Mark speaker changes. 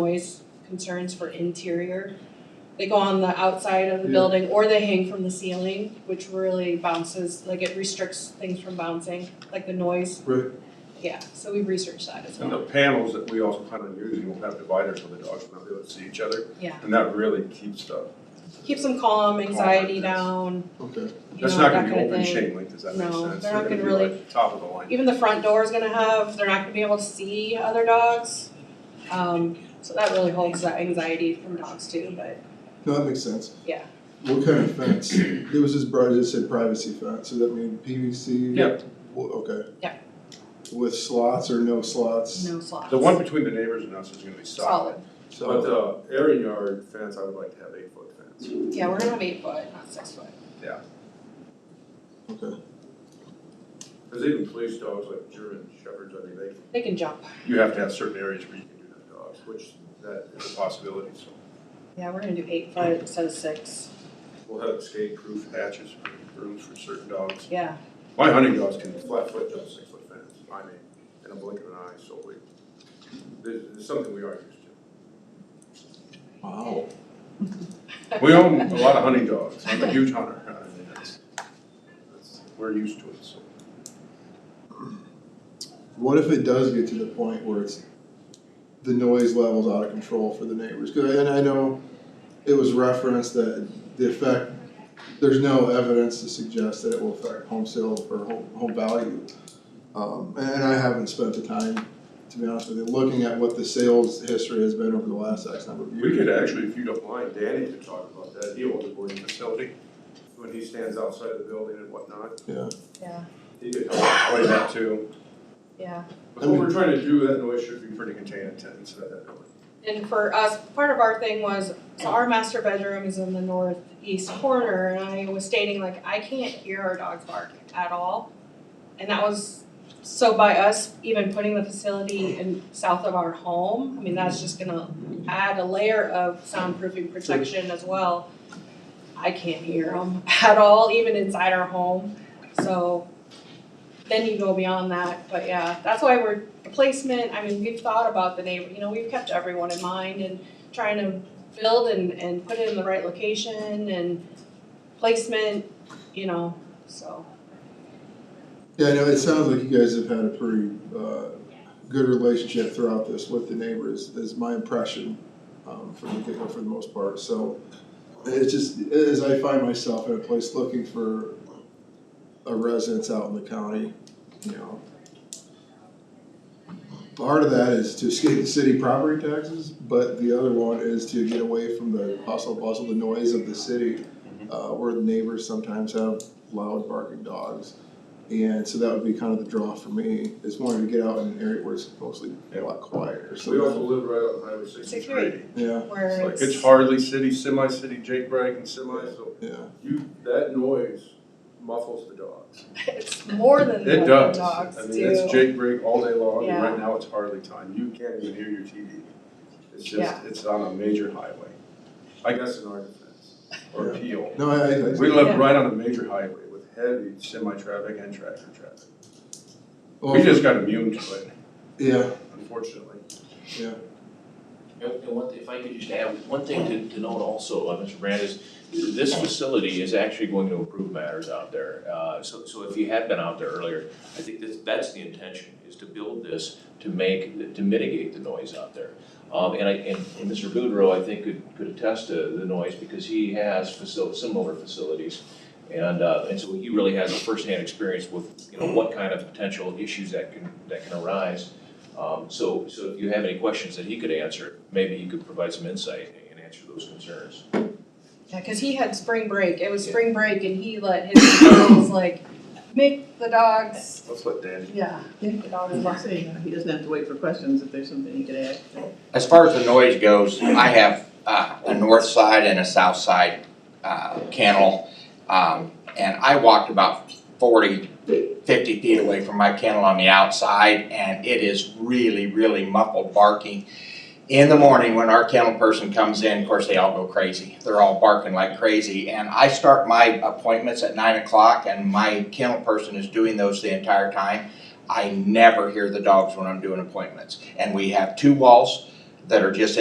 Speaker 1: noise concerns for interior. They go on the outside of the
Speaker 2: Yeah.
Speaker 1: building or they hang from the ceiling, which really bounces, like it restricts things from bouncing, like the noise.
Speaker 2: Right.
Speaker 1: Yeah, so we researched that as
Speaker 2: And
Speaker 1: well,
Speaker 2: the panels that we also plan on using will have dividers so the dogs will not be able to see each other,
Speaker 1: yeah.
Speaker 2: and that really keeps stuff.
Speaker 1: Keeps them calm, anxiety
Speaker 2: Calm, yes.
Speaker 1: down,
Speaker 2: Okay.
Speaker 1: you
Speaker 2: That's
Speaker 1: know, that
Speaker 2: not gonna
Speaker 1: kind
Speaker 2: be
Speaker 1: of
Speaker 2: open
Speaker 1: thing.
Speaker 2: chain link, does that make sense?
Speaker 1: No, they're not gonna
Speaker 2: be
Speaker 1: really-
Speaker 2: like Top of the line.
Speaker 1: Even the front door is gonna have, they're not gonna be able to see other dogs. Um, so that really holds that anxiety from dogs too, but
Speaker 3: No, that makes sense.
Speaker 1: Yeah.
Speaker 3: What kind of fence? There was this broad that said privacy fence, does that mean PVC?
Speaker 2: Yeah.
Speaker 3: Wha- Okay.
Speaker 1: Yeah.
Speaker 3: With slots or no slots?
Speaker 1: no slots.
Speaker 2: The one between the neighbors and us is gonna be solid.
Speaker 1: Solid,
Speaker 2: But
Speaker 3: So,
Speaker 2: the area yard fence, I would like to have eight foot fence.
Speaker 1: yeah, we're gonna have eight foot, not six foot.
Speaker 3: okay,
Speaker 2: Cause even police dogs like German shepherds, I mean, they,
Speaker 1: They can jump.
Speaker 2: you have to have certain areas where you can do that dogs, which that is a possibility, so.
Speaker 1: Yeah, we're gonna do eight foot instead of six,
Speaker 2: We'll have escape proof hatches, for- rooms for certain dogs.
Speaker 1: yeah.
Speaker 2: My hunting dogs can flat foot jump six foot fence, I mean, in a blink of an eye, so we, this this is something we are used to.
Speaker 3: wow.
Speaker 2: We own a lot of hunting dogs, I'm a huge hunter, I mean, that's, that's, we're used to it, so.
Speaker 3: What if it does get to the point where it's, the noise level's out of control for the neighbors? Cause I, and I know it was referenced that the effect, there's no evidence to suggest that it will affect home sale or home, home value. Um, and, and I haven't spent the time, to be honest with you, looking at what the sales history has been over the last X number of
Speaker 2: We
Speaker 3: years.
Speaker 2: could actually, if you don't mind, Danny could talk about that, he owns a boarding facility, when he stands outside the building and whatnot,
Speaker 3: Yeah,
Speaker 1: Yeah,
Speaker 2: he could help explain that too.
Speaker 1: yeah.
Speaker 2: But what we're trying to do, that noise should be pretty contained to- inside that building.
Speaker 1: And for us, part of our thing was, so our master bedroom is in the northeast corner, and I was stating like, I can't hear our dogs bark at all. And that was, so by us even putting the facility in south of our home, I mean, that's just gonna add a layer of soundproofing protection as well. I can't hear them at all, even inside our home, so then you go beyond that, but yeah, that's why we're the placement, I mean, we've thought about the neighbor, you know, we've kept everyone in mind and trying to build and, and put it in the right location and placement, you know, so,
Speaker 3: yeah, I know, it sounds like you guys have had a pretty, uh, good relationship throughout this with the neighbors, is my impression, um, from the get-go for the most part, so. It's just, as I find myself in a place looking for a residence out in the county, you know. Part of that is to escape the city property taxes, but the other one is to get away from the hustle bustle, the noise of the city,
Speaker 2: Mm-hmm.
Speaker 3: uh, where the neighbors sometimes have loud barking dogs. And so that would be kind of the draw for me, is wanting to get out in an area where it's mostly a lot quieter, so.
Speaker 2: We also live right on Highway sixty-three.
Speaker 3: Yeah,
Speaker 1: where
Speaker 2: It's like,
Speaker 1: it's.
Speaker 2: it's hardly city, semi-city, Jake Bragg and semi, so
Speaker 3: yeah.
Speaker 2: you, that noise muffles the dogs.
Speaker 1: it's more than
Speaker 2: It
Speaker 1: what
Speaker 2: does.
Speaker 1: the dogs do.
Speaker 2: I mean, it's Jake Bragg all day long, and
Speaker 1: Yeah.
Speaker 2: right now it's hardly time, you can't even hear your TV. It's
Speaker 1: Yeah.
Speaker 2: just, it's on a major highway, I guess in our defense, or Peel.
Speaker 3: No, I, I, I.
Speaker 2: We
Speaker 1: Yeah.
Speaker 2: live right on a major highway with heavy semi-traffic and tractor traffic.
Speaker 3: well,
Speaker 2: We just got immune to it,
Speaker 3: Oh, Yeah,
Speaker 2: unfortunately.
Speaker 3: yeah.
Speaker 4: And and one thing, if I could just add, one thing to, to note also, uh, Mr. Brand, is this facility is actually going to improve matters out there. Uh, so, so if you had been out there earlier, I think that's, that's the intention, is to build this to make, to mitigate the noise out there. Um, and I, and and Mr. Boudreau, I think, could, could attest to the noise because he has facil, similar facilities. And, uh, and so he really has a firsthand experience with, you know, what kind of potential issues that can, that can arise. Um, so, so if you have any questions that he could answer, maybe he could provide some insight and answer those concerns.
Speaker 1: Yeah, cause he had spring break, it was spring break and he let his girls like make the dogs,
Speaker 2: Let's let Dan.
Speaker 1: yeah, make the dogs bark.
Speaker 5: He doesn't have to wait for questions if there's something he could add.
Speaker 6: As far as the noise goes, I have uh, a north side and a south side uh, kennel. Um, And I walked about 40, 50 feet away from my kennel on the outside, and it is really, really muffled barking. In the morning, when our kennel person comes in, of course, they all go crazy. They're all barking like crazy. And I start my appointments at 9 o'clock, and my kennel person is doing those the entire time. I never hear the dogs when I'm doing appointments. And we have two walls that are just